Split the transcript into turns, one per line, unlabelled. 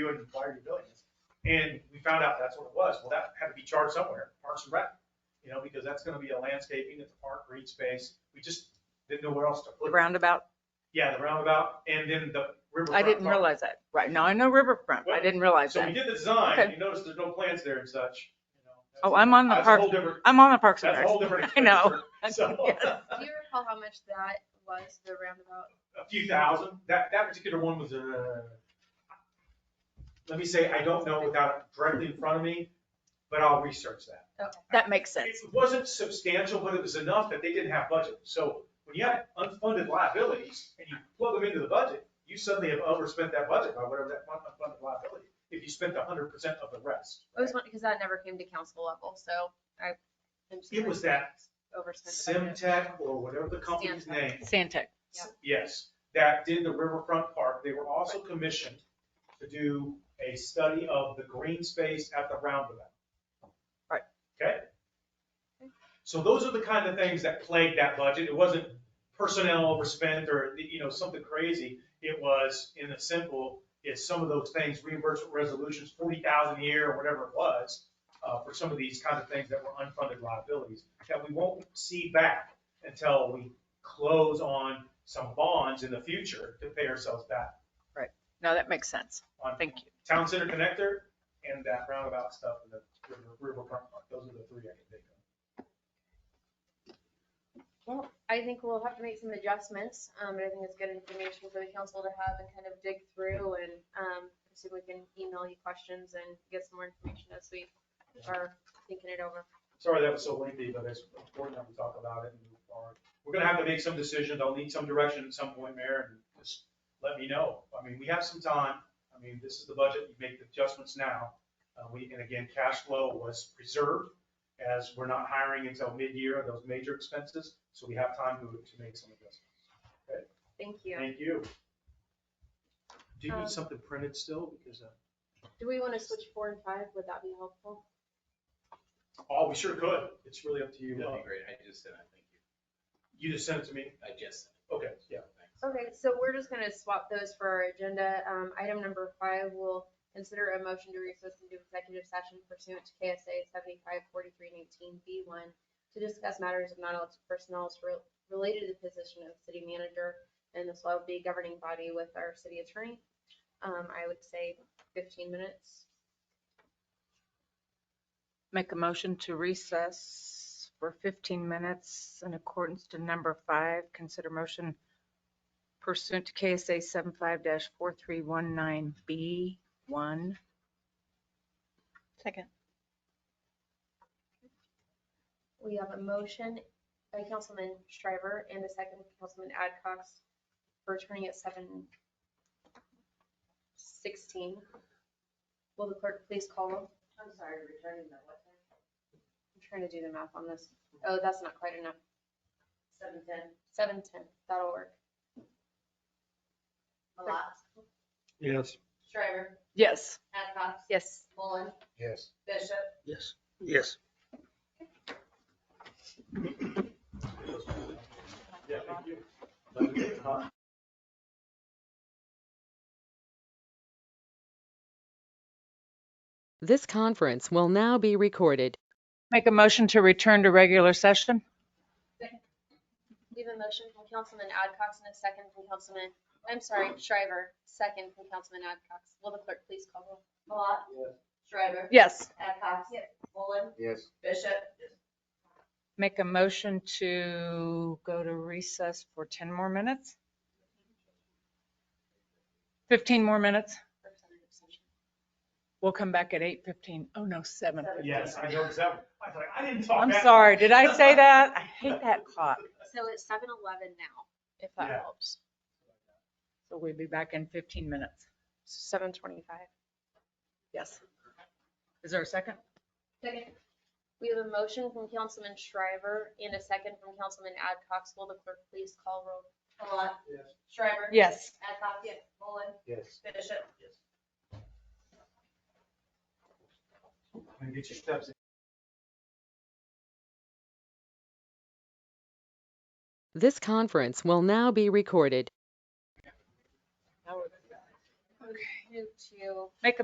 doing, why are you doing this? And we found out that's what it was. Well, that had to be charged somewhere, Parks and Rec, you know, because that's gonna be a landscaping at the park, green space. We just didn't know where else to
The
put it.
roundabout,
Yeah, the roundabout and then the riverfront.
I didn't
park.
realize that. Right, no, I know riverfront, I didn't realize
So we
that.
did the
Okay.
design, you notice there's no plants there and such. you know. That's-
Oh, I'm on the
That's a
park,
whole different,
I'm on the Parks and
that's a whole
Rec.
different.
I know.
expenditure. So,
Yes.
Do you recall how much that was, the roundabout?
a few thousand. That, that particular one was, uh, let me say, I don't know without it directly in front of me, but I'll research that.
That makes sense.
It wasn't substantial, but it was enough that they didn't have budget. So when you have unfunded liabilities and you plug them into the budget, you suddenly have overspent that budget by whatever that one unfunded liability, if you spent hundred percent of the rest.
It was one, because that never came to council level, so I. I'm just
It was that
overspent the budget.
Simtech or whatever the company's
Stantec.
name,
Sandtech.
Yeah.
yes, that did the riverfront park. They were also commissioned to do a study of the green space at the roundabout.
Right.
Okay? So those are the kind of things that plagued that budget. It wasn't personnel overspent or, you know, something crazy. It was, in a simple, it's some of those things, reimbursement resolutions, forty thousand a year or whatever it was, uh, for some of these kind of things that were unfunded liabilities that we won't see back until we close on some bonds in the future to pay ourselves back
No, that makes sense.
on
Thank you.
Town Center Connector and that roundabout stuff in the river- riverfront park. Those are the three I can think of.
Well, I think we'll have to make some adjustments, um, but I think it's good information for the council to have and kind of dig through and, um, see if we can email you questions and get some more information as we are thinking it over.
Sorry that was so lengthy, but it's important that we talk about it and move forward. We're gonna have to make some decisions. I'll need some direction at some point, Mayor, and just let me know. I mean, we have some time. I mean, this is the budget. You make the adjustments now. Uh, we, and again, cash flow was preserved as we're not hiring until mid-year on those major expenses, so we have time to, to make some adjustments.
Thank you.
Thank you. Do you
Um,
need something printed still? Because, uh,
Do we want to switch four and five? Would that be helpful?
oh, we sure could. It's really up to
That'd
you.
be
Uh,
great. I just said, I thank you.
You just sent it to me.
I just.
Okay, yeah.
Thanks.
Okay, so we're just gonna swap those for our agenda. Um, item number five will consider a motion to recess into executive session pursuant to KSA seventy-five forty-three nineteen B one to discuss matters of non-elected personnel as rel- related to the position of city manager, and this will be governing body with our city attorney. Um, I would say fifteen minutes.
Make a motion to recess for 15 minutes in accordance to number five. Consider motion pursuant to KSA 75-4319B1.
Second.
We have a motion by Councilman Shriver and a second by Councilman Adcox for returning at seven sixteen. Will the clerk please call roll?
I'm sorry, returning that what time?
I'm trying to do the math on this. Oh, that's not quite enough.
Seven ten,
Seven ten, that'll work.
Malat,
Yes.
Shriver,
Yes.
Adcox,
Yes.
Mullen,
Yes.
Bishop.
Yes. Yes.
Yeah, thank you. Let me get a copy.
This conference will now be recorded.
Make a motion to return to regular session?
We have a motion from Councilman Adcox and a second from Councilman, I'm sorry, Shriver, second from Councilman Adcox. Will the clerk please call roll?
Malat,
Yes.
Shriver,
Yes.
Adcox, Mullen,
Yes.
Bishop.
Make a motion to go to recess for 10 more minutes? 15 more minutes? We'll come back at 8:15. Oh, no, 7.
Yes, I noticed that. one. I was like, I didn't talk.
I'm
that
sorry,
much.
did I say that? I hate that clock.
So it's seven eleven now, if
that Yeah.
helps.
So we'll be back in 15 minutes.
Seven twenty-five.
Yes. Is there a second?
Second. We have a motion from Councilman Shriver and a second from Councilman Adcox. Will the clerk please call roll?
Malat,
Yes.
Shriver.
Yes.
Adcox, Mullen,
Yes.
Bishop.
Get your steps in.
This conference will now be recorded.
Move to